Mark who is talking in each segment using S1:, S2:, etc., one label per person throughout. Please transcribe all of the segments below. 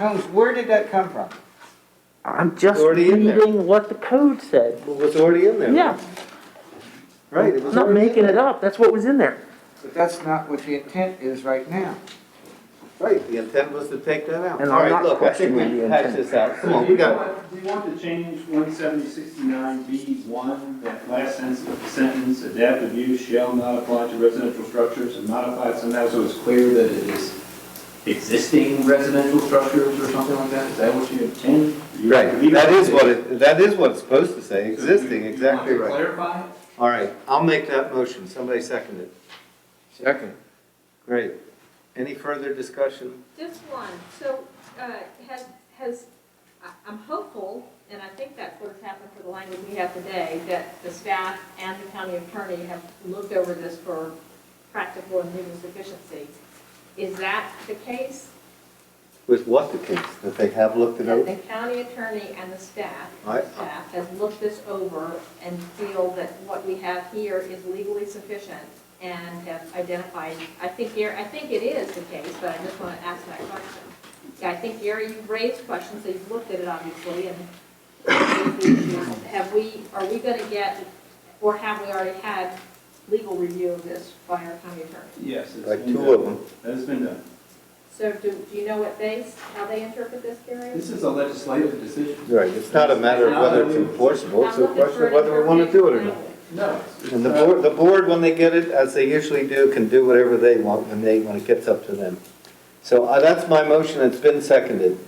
S1: Holmes, where did that come from?
S2: I'm just
S3: Already in there.
S2: reading what the code said.
S3: Well, it's already in there.
S2: Yeah,
S3: Right, it
S2: I'm
S3: was
S2: not
S3: already in
S2: making
S3: there.
S2: it up, that's what was in there.
S1: But that's not what the intent is right now.
S3: Right, the intent was to take that out.
S2: And
S3: All
S2: I'm
S3: right,
S2: not
S3: look, I think
S2: questioning
S3: we
S2: the
S3: patched
S2: intent.
S3: this out. Come
S4: So
S3: on,
S4: do
S3: we
S4: you
S3: got it.
S4: want, do you want to change one seventy sixty-nine B one, that last sentence, sentence, adaptive use shall not apply to residential structures and modify it somehow so it's clear that it is existing residential structures or something like that? Is that what you intend? You
S3: Right,
S4: believe
S3: that is
S4: it
S3: what it, that is what it's supposed to say,
S4: So you-
S3: existing,
S4: you want
S3: exactly
S4: to
S3: right.
S4: Clarify? it?
S3: All right, I'll make that motion, somebody second it.
S1: Second.
S3: Great. Any further discussion?
S5: Just one, so, uh, has, has, I- I'm hopeful, and I think that's what's happened for the language we have today, that the staff and the county attorney have looked over this for practical and legal sufficiency. Is that the case?
S3: With what the case, that they have looked it
S5: That
S3: over?
S5: the county attorney and the staff,
S3: I-
S5: staff has looked this over and feel that what we have here is legally sufficient and have identified, I think, Gary, I think it is the case, but I just want to ask that question. Yeah, I think, Gary, you've raised questions, so you've looked at it obviously, and have we, are we going to get, or have we already had legal review of this by our county attorney?
S4: Yes. it's
S3: Like
S4: been
S3: two of
S4: done.
S3: them.
S4: That has been done.
S5: So do, do you know what they, how they interpret this, Gary?
S4: This is a legislative decision.
S3: Right, it's not a matter of whether it's enforceable, it's a
S5: I'm looking
S3: question
S5: for
S3: of
S5: an
S3: whether we want to do it or not.
S5: interpretation.
S4: No. it's- it's uh,
S3: And the
S4: not-
S3: board, the board, when they get it, as they usually do, can do whatever they want when they, when it gets up to them. So uh, that's my motion, it's been seconded.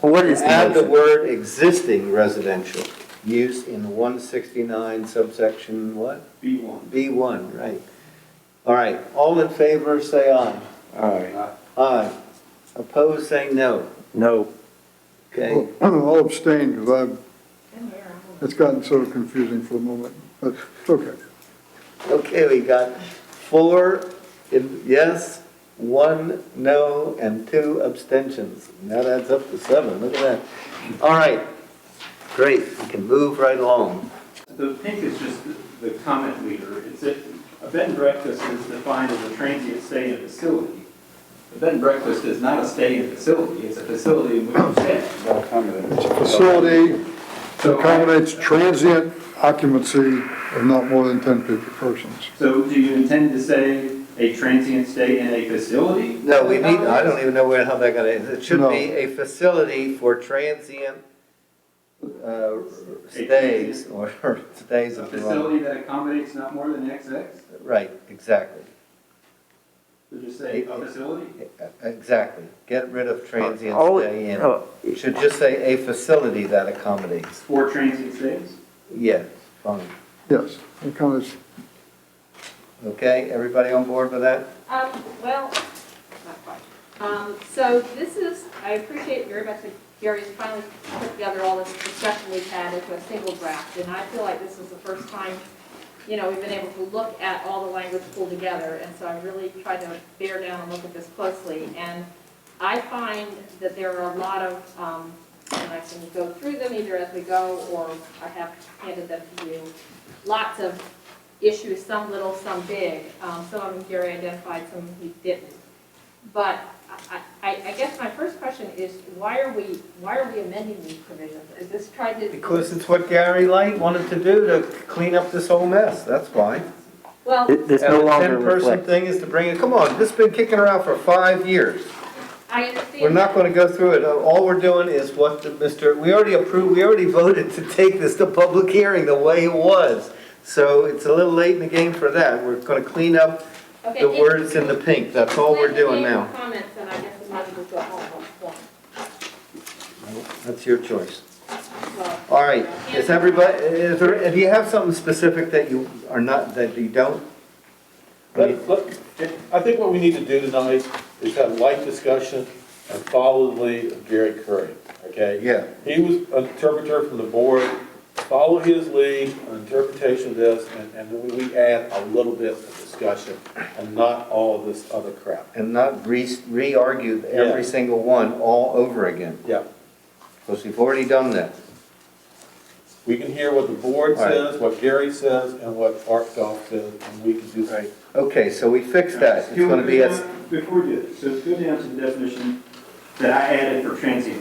S2: Well, What is
S3: Add the
S2: the motion?
S3: word existing residential use in 169 subsection what?
S4: B one.
S3: B1, right. All right, all in favor, say aye.
S2: Alright.
S3: Aye. Opposed, say no.
S2: No,
S3: Okay,
S6: I'll abstain because
S5: In here, I don't know.
S6: it's gotten so confusing for the moment, but it's okay.
S3: okay, we got four in- yes, one no, and two abstentions. And That adds up to seven, look at that. All right, great, we can move right along.
S4: The pink is just the- the comment leader. It's a, a bed and breakfast is defined as a transient stay in facility. A bed and breakfast is not a stay in facility, it's a facility in which you stay.
S6: It's a facility that
S4: So,
S6: accommodates transient occupancy of not more than 10 people persons.
S4: so do you intend to say a transient stay in a facility?
S3: No, we need, I don't even know where, how that got in. It should
S6: No.
S3: be a facility for transient uh, stays or stays
S4: A
S3: if you want.
S4: facility that accommodates not more than XX?
S3: Right, exactly,
S4: So just say a facility?
S3: exactly. Get rid of transient
S2: All-
S3: stay in.
S2: oh,
S3: It Should just say a facility that accommodates.
S4: For transient stays?
S3: Yes, fine.
S6: Yes, it kind of,
S3: Okay, everybody on board with that?
S5: Um, well, not quite. Um, so this is, I appreciate very much that Gary's finally put together all this discussion we've had into a single draft. And I feel like this is the first time, you know, we've been able to look at all the language pulled together. And so I really tried to bear down and look at this closely. And I find that there are a lot of, um, and I can go through them either as we go or I have handed them to you, lots of issues, some little, some big. Um, Some of them Gary identified, some he didn't. But I, I, I guess my first question is, why are we, why are we amending these provisions? Is this tried to?
S3: Because it's what Gary Light wanted to do to clean up this whole mess, that's why.
S5: Well,
S2: It- this
S3: And
S2: no
S3: the
S2: longer
S3: Ten-person
S2: reflects.
S3: thing is to bring it, come on, this has been kicking around for five years.
S5: I understand.
S3: We're not going to go through it. All we're doing is what the Mr., we already approved, we already voted to take this to public hearing the way it was. So it's a little late in the game for that. We're going to clean up
S5: Okay,
S3: the
S5: it-
S3: words in the pink. That's all we're doing
S5: Gary
S3: now.
S5: Comments, and I guess we might as well go all at once.
S3: That's your choice.
S5: Well,
S3: All right, is everybody, is there, if you have something specific that you are not, that you don't?
S7: Let- let- I think what we need to do tonight is have light discussion and follow the lead of Gary Curry, okay?
S3: Yeah.
S7: He was an interpreter from the board, follow his lead, on interpretation of this, and, and then we add a little bit of discussion and not all this other crap.
S3: And not re, re-argue every
S7: Yeah.
S3: single one all over again,
S7: Yeah,
S3: because we've already done that.
S7: we can hear what the board
S3: All right.
S7: says, what Gary says, and what Art Goff says, and we can do that.
S3: Okay, so we fixed that. It's
S4: Do you
S3: going to be
S4: want
S3: as,
S4: to go down- Before you do, that, so go down to the definition, that I added for transient